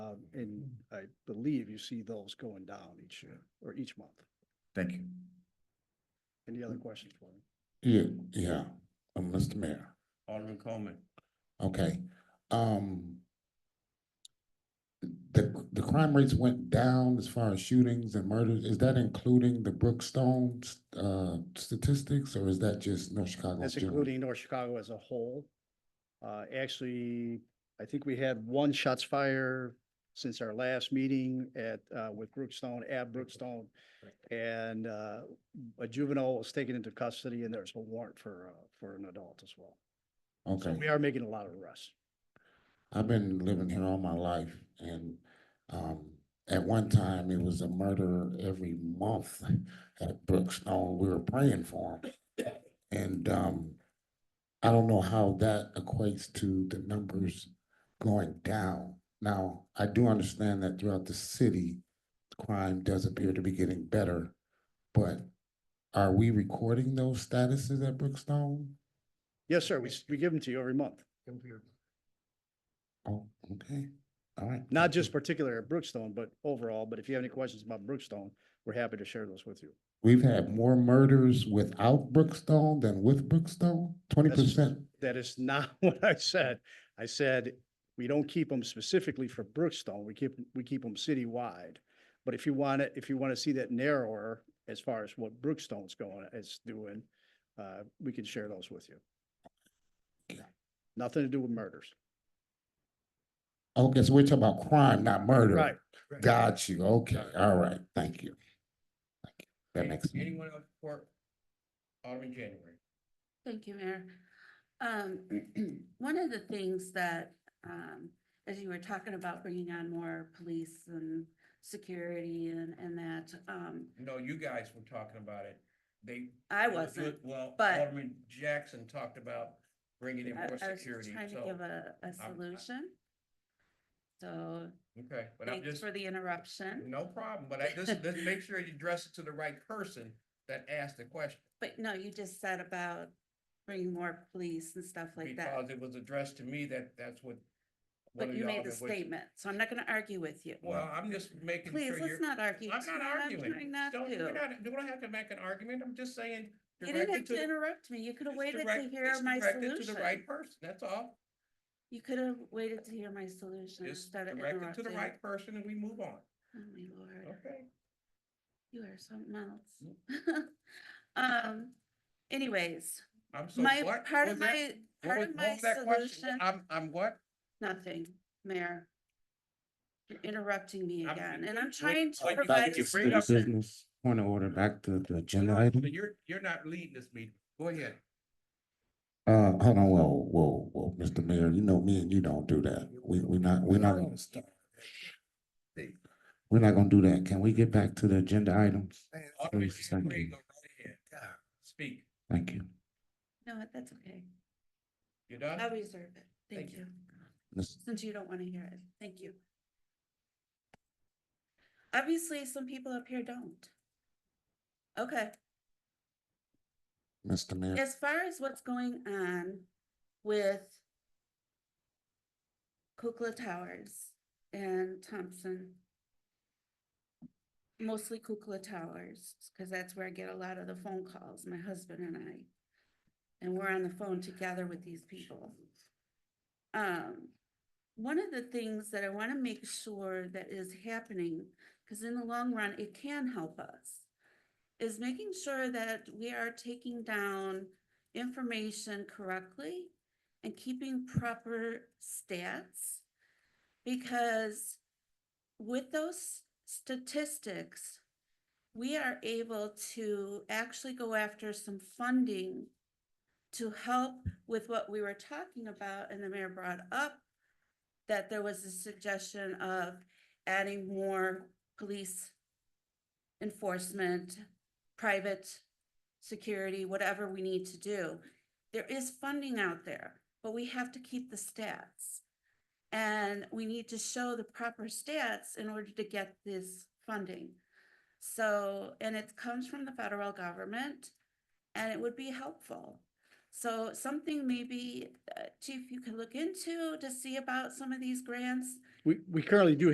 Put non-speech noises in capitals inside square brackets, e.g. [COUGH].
Um, believe you see those going down each year or each month. Thank you. Any other questions for me? Yeah, yeah, uh, Mr. Mayor. Alderman Coleman. Okay, um. The, the crime rates went down as far as shootings and murders. Is that including the Brookstone, uh, statistics or is that just North Chicago? That's including North Chicago as a whole. Uh, actually, I think we had one shots fired since our last meeting at, uh, with Brookstone, at Brookstone. And, uh, a juvenile was taken into custody and there's a warrant for, uh, for an adult as well. So Okay. we are making a lot of arrests. I've been living here all my life and um at one time it was a murder every month at Brookstone. We were praying for him. And um I don't know how that equates to the numbers going down. Now, I do understand that throughout the city, crime does appear to be getting better, but are we recording those statuses at Brookstone? Yes, sir. We, s- we give them to you every month, Oh, okay, all right. not thank you. just particular at Brookstone, but overall. But if you have any questions about Brookstone, we're happy to share those with you. We've had more murders without Brookstone than with Brookstone, twenty percent. That is [LAUGHS] not what I said. I said, we don't keep them specifically for Brookstone. We keep, we keep them citywide. But if you want to, if you want to see that narrower as far as what Brookstone's going, is doing, uh, we can share those with you. Okay. Nothing to do with murders. Okay, so we're talking about crime, not murder. Right. Got you. Okay, all right, thank you. Thank you. That Any- makes. sense. Anyone else for Alderman January? Thank you, Mayor. Um, [CLEARS THROAT] one of the things that, um, as you were talking about bringing on more police and security and, and that, um, No, you guys were talking about it. They. I you- wasn't. Well, but- Alderman Jackson talked about bringing in I I more was just security, trying to so, give a, a solution. So okay, but I'm thanks just, Mm-hmm. for the interruption. no problem, but I [LAUGHS] just, just make sure you address it to the right person that asked the question. But no, you just said about bringing more police and stuff like that. Because it was addressed to me that that's what. one But of you the made the aldermen was- statement, so I'm not gonna argue with you. Well, I'm just making Please, sure you're. let's not argue. I'm tonight. not I'm trying arguing. not Don't, to. you're not, do I have to make an argument? I'm just saying. You direct didn't it have to to the- interrupt me. You could have just waited to direct- hear just my direct it To the solution. right person, that's all. You could have waited to hear my solution Just instead of direct it to the interrupting. right person and we move on, Oh, my lord, okay? you are something else. [LAUGHS] Um, anyways, I'm so my, what? part What of was that? What my, part was- what of my was that question? solution, I'm, I'm what? nothing, Mayor. You're interrupting me I'm- again, and I'm what- trying to what you provide think a is bring up- solution. point of order, back to the agenda No, item. You're, you're not leading this meeting, go ahead. Uh, hold on, whoa, whoa, whoa, Mr. Mayor, you know me and you don't do that. We, we not, we're not, gonna- we're not gonna do that. Can we get back to the agenda items? Alderman Please, thank January, you. go right ahead. Speak, Thank you. No, that's okay. you I'll done? reserve it. Thank Thank you. Miss- since you don't want to hear it. Thank you. Obviously, some people up here don't. Okay, Mr. Mayor, as far as what's going on with Kukla Towers and Thompson. Mostly Kukla Towers, because that's where I get a lot of the phone calls, my husband and I. And we're on the phone together with these people. Um, one of the things that I want to make sure that is happening, because in the long run, it can help us, is making sure that we are taking down information correctly and keeping proper stats. Because with those statistics, we are able to actually go after some funding to help with what we were talking about and the mayor brought up that there was a suggestion of adding more police enforcement, private security, whatever we need to do. There is funding out there, but we have to keep the stats. And we need to show the proper stats in order to get this funding. So, and it comes from the federal government and it would be helpful. So something maybe, uh, Chief, you could look into to see about some of these grants We, we currently do